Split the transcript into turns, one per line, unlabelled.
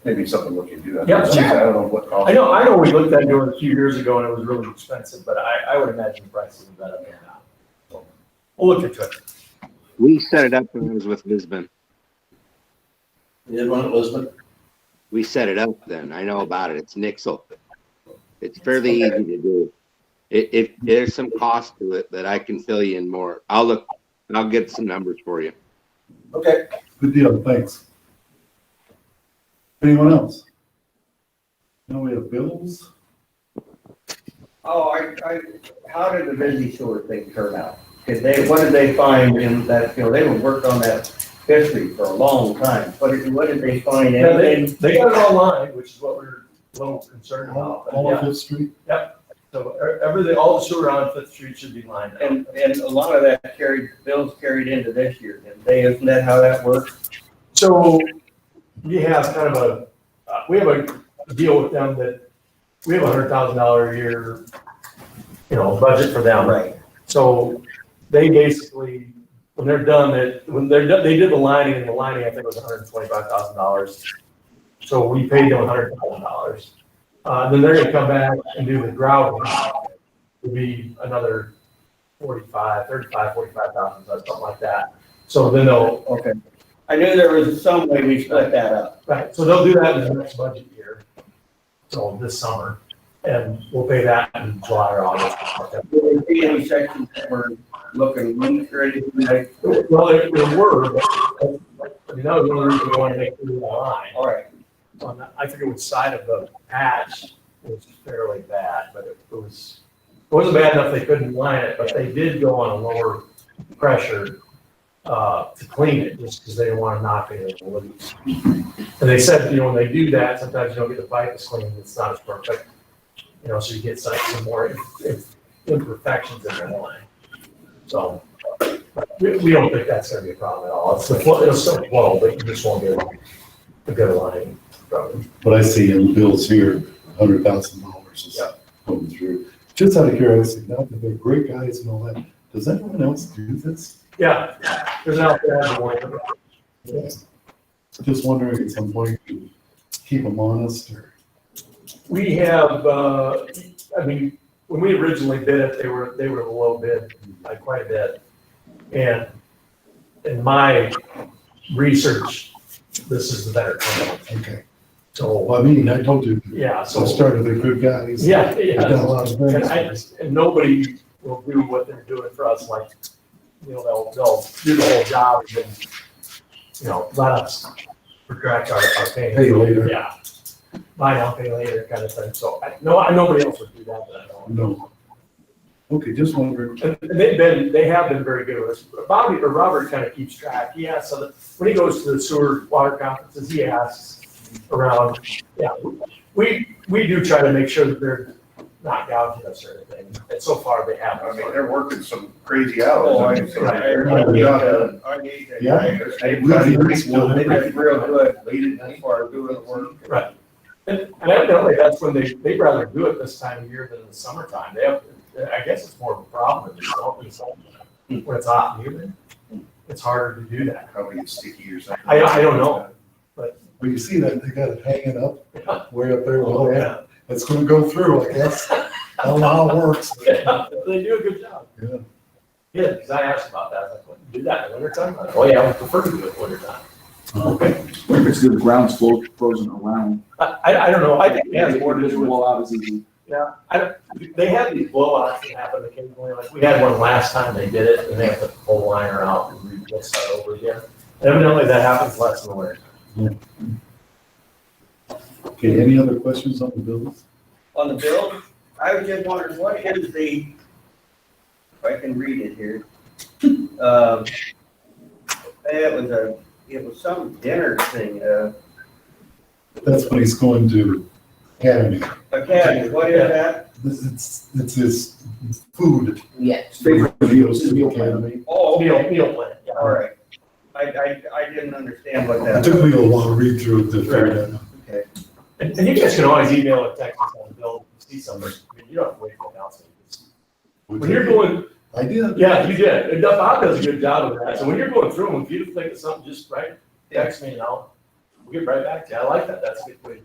maybe something we can do. I
Yeah,
don't know.
sure.
I don't know what cost.
I know, I know we looked at doing it a few years ago and it was really expensive, but I, I would imagine prices are better than that. So, We'll look into it.
We set it up when I was with Lisbon.
You did one at Lisbon?
We set it up then. I know about it. It's Nixle. It's fairly easy to do. It, it, there's some cost to it that I can fill you in more. I'll look, I'll get some numbers for you.
Okay.
Good deal, thanks. Anyone else? Now we have bills.
Oh, I, I, how did the busy sewer thing turn out? Did they, what did they find in that, you know, they were worked on that history for a long time. What did, what did they find?
Yeah, they,
Anything?
they got it online, which is what we're a little concerned about. but
All
yeah.
of Fifth Street,
So e- everything, all the sewer on Fifth Street should be lined up.
And, and a lot of that carried, bills carried into this year, didn't they? Isn't that how that works?
So we have kind of a, uh, we have a deal with them that we have a hundred thousand dollar a year, you know, budget for them.
Right.
So they basically, when they're done, it, when they're done, they did the lining and the lining, I think was hundred and twenty-five thousand dollars. So we paid them hundred thousand dollars. Uh, then they're gonna come back and do the grouting. Would be another forty-five, thirty-five, forty-five thousand, something like that. So then they'll,
Okay. I knew there was some way we split that up.
Right, so they'll do that in the next budget year, so this summer, and we'll pay that in July or August.
Did we see any sections that were looking weak or anything like?
Well, there there were, but, I mean, that was one of the reasons we wanted to make it line.
All right.
On that- I forget which side of the patch was fairly bad, but it was, it wasn't bad enough they couldn't line it, but they did go on a lower pressure uh, to clean it, just because they didn't want to knock it in loose. And they said, you know, when they do that, sometimes you don't get the pipe as clean, it's not as perfect, you know, so you get some, some more im- im- imperfections in the line. So, we, we don't think that's gonna be a problem at all, it's the, flow- it'll still flow, but you just won't get a good line from it.
but I see in the bills here, a hundred thousand dollars is
Yeah.
coming through. Just out of curiosity, now that they're great guys and all that, does anyone else do this?
Yeah, there's an outfit on the way.
Just wondering at some point, you keep them honest or,
We have, uh, I mean, when we originally bid it, they were, they were the low bid by quite a bit. And in my research, this is the better company.
okay.
So,
Well, I mean, I told you,
yeah,
so I
so,
started with good guys.
yeah,
I've done a
yeah.
lot of
And I,
things.
and nobody will do what they're doing for us, like, you know, they'll, they'll do the whole job and then, you know, let us retract our, our payment.
Pay later.
Yeah. Buy now, pay later kind of thing. So I, no, I, nobody else would do that, but I don't.
No. Okay, just wondering.
And they've been, they have been very good with us. Bobby, or Robert kind of keeps track. He asks, other- when he goes to the sewer water conferences, he asks around, yeah. We, we do try to make sure that they're not gouging us or anything. And so far they
I
haven't.
mean, they're working some crazy
Oh,
hours. I mean, so
Right.
they're-
Right.
Yeah. I mean, they-
Yeah.
They
We'll be next one.
they did real good, they didn't for doing the work.
Right. And and evidently, that's when they, they'd rather do it this time of year than in the summertime. They have, I guess it's more of a problem in the summer- in the summertime. When it's hot and humid, it's harder to do that.
Probably it's sticky or something.
I- I don't know.
Well, you see that, they got it hanging
Yeah.
up, way up there, well, yeah, it's gonna go through, I guess. I don't know how it works.
Yeah, They do a good job.
Yeah.
Yeah, because I asked about that, I was like, "Well, you do that in wintertime? I'm like, Oh, yeah, I would prefer to do it wintertime.
Okay.
What if it's good, the ground's flo- frozen around?
I, I, I don't know, I think, yeah,
The
the board is,
just roll out as easy.
yeah, I don't, they have these blowouts that happen occasionally, like, we had one last time they did it, and they have to pull the liner out and re-put that over again. Evidently, that happens less in the winter.
Okay, any other questions on the bills?
on the bill, I was just wondering, what is the, if I can read it here. Um, It was a, it was some dinner thing, uh,
That's what he's going to Academy.
academy, what is that?
This, it's, it's his food.
It's favorite
He goes to the
meal plan.
Academy.
Oh,
Meal,
okay,
meal plan, yeah.
all right. I, I, I didn't understand what
It
that,
took me a while to read through it to figure that out.
okay.
And, and you guys can always email or text us on the bill, see somebody, I mean, you don't have to wait for announcement. When you're going,
I did.
Yeah, you did. And Bob does a good job of that. So when you're going through them, if you think of something, just write, text me and I'll we'll get right back to you. I like that. That's a good way to